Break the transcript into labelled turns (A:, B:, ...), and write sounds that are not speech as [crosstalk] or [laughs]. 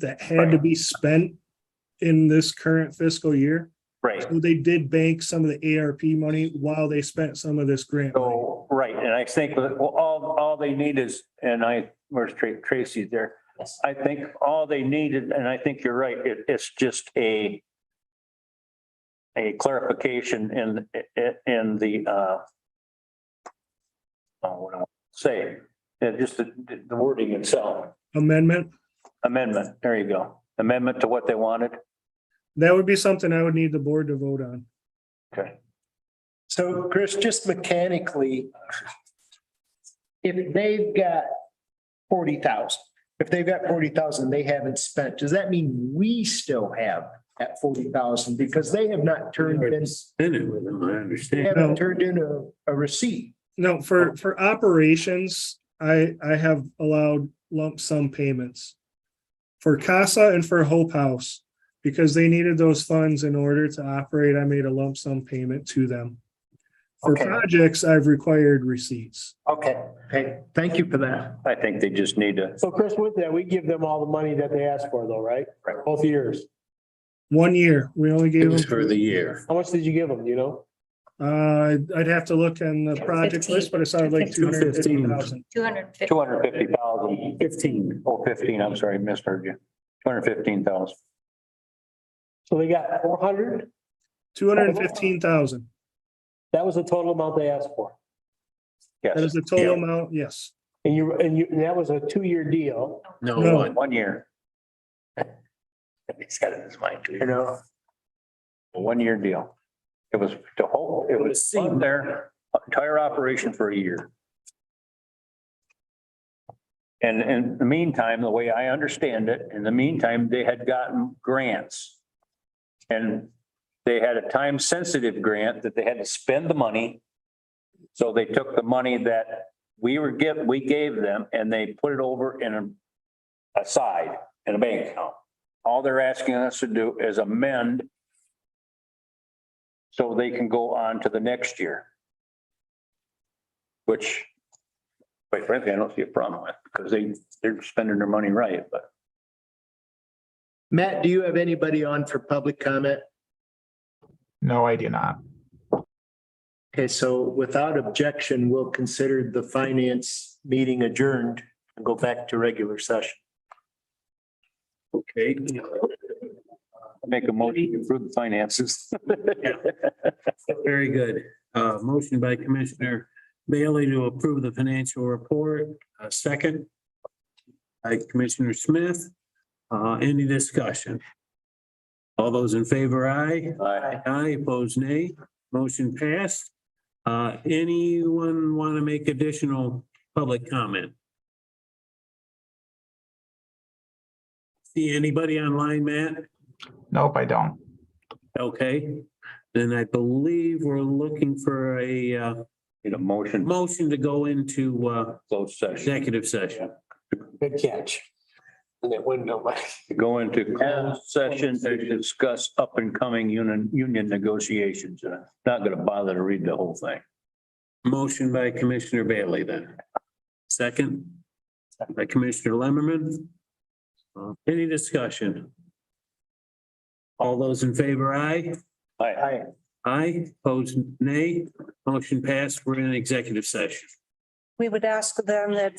A: that had to be spent in this current fiscal year.
B: Right,
A: So They did bank some of the ARP money while they spent some of this grant. money.
B: so, right, and I think that all, all they need is, and I, where's Tra- Tracy there?
C: Yes.
B: I think all they needed, and I think you're right, it, it's just a a clarification in, in the, uh, oh, what I want to say, Yeah, just the, the wording itself,
A: Amendment,
B: amendment, there you go, amendment to what they wanted.
A: that would be something I would need the board to vote on.
D: So Chris, just mechanically, if they've got forty thousand, if they've got forty thousand they haven't spent, does that mean we still have that forty thousand? Because they have not turned in,
E: In it with them, I
D: they
E: understand.
D: haven't turned in a, a receipt.
A: No, for, for operations, I, I have allowed lump sum payments. For CASA and for Hope House, because they needed those funds in order to operate, I made a lump sum payment to them. For
D: Okay.
A: projects, I've required receipts.
D: Okay. Hey, thank you for that.
B: I think they just need to,
F: So Chris, with that, we give them all the money that they asked for though, right?
B: Right.
F: Both years.
A: One year, we only
E: It
A: gave them.
E: was for the year.
F: How much did you give them, you know?
A: Uh, I'd have to look in the project
C: 15.
A: list, but it sounded like two hundred and fifty
E: 215.
A: thousand.
C: Two hundred and fifty.
B: two hundred fifty thousand,
E: Fifteen.
B: oh, fifteen, I'm sorry, misheard you, two hundred fifteen thousand.
F: So they got four hundred.
A: Two hundred and fifteen thousand.
F: That was the total amount they asked for.
A: That is
B: Yes,
A: the total amount, yes.
F: And you, and you, and that was a two-year deal.
E: No
A: No.
E: one.
B: one year. [laughs] He's got it in his mind, too.
D: know.
B: A one-year deal. It was to hold, it was fund their entire operation for a year. And in the meantime, the way I understand it, in the meantime, they had gotten grants. And they had a time-sensitive grant that they had to spend the money. So they took the money that we were give, we gave them and they put it over in a aside in a bank account. All they're asking us to do is amend so they can go on to the next year. Which, quite frankly, I don't see a problem with, because they, they're spending their money right, but
D: Matt, do you have anybody on for public comment?
G: No, I do not.
D: Okay, so without objection, we'll consider the finance meeting adjourned and go back to regular session.
B: okay. Make a motion to approve the finances. [laughs]
E: Very good. Uh, motion by Commissioner Bailey to approve the financial report, a second. By Commissioner Smith, uh, any discussion? All those in favor, aye.
B: Aye.
E: Aye, opposed, nay. Motion passed. Uh, anyone want to make additional public comment? See anybody online, Matt?
G: Nope, I don't.
E: Okay, then I believe we're looking for a uh,
B: Need a motion,
E: motion to go into uh,
B: closed session,
E: executive session.
F: Good catch. And that window, Mike.
B: go into closed session to discuss up and coming union, union negotiations. And I'm Not gonna bother to read the whole thing.
E: Motion by Commissioner Bailey then. Second by Commissioner Lemmerman. Uh, Any discussion? All those in favor, aye?
B: Aye.
E: Aye, opposed, nay. Motion passed. We're in executive session.
H: we would ask them that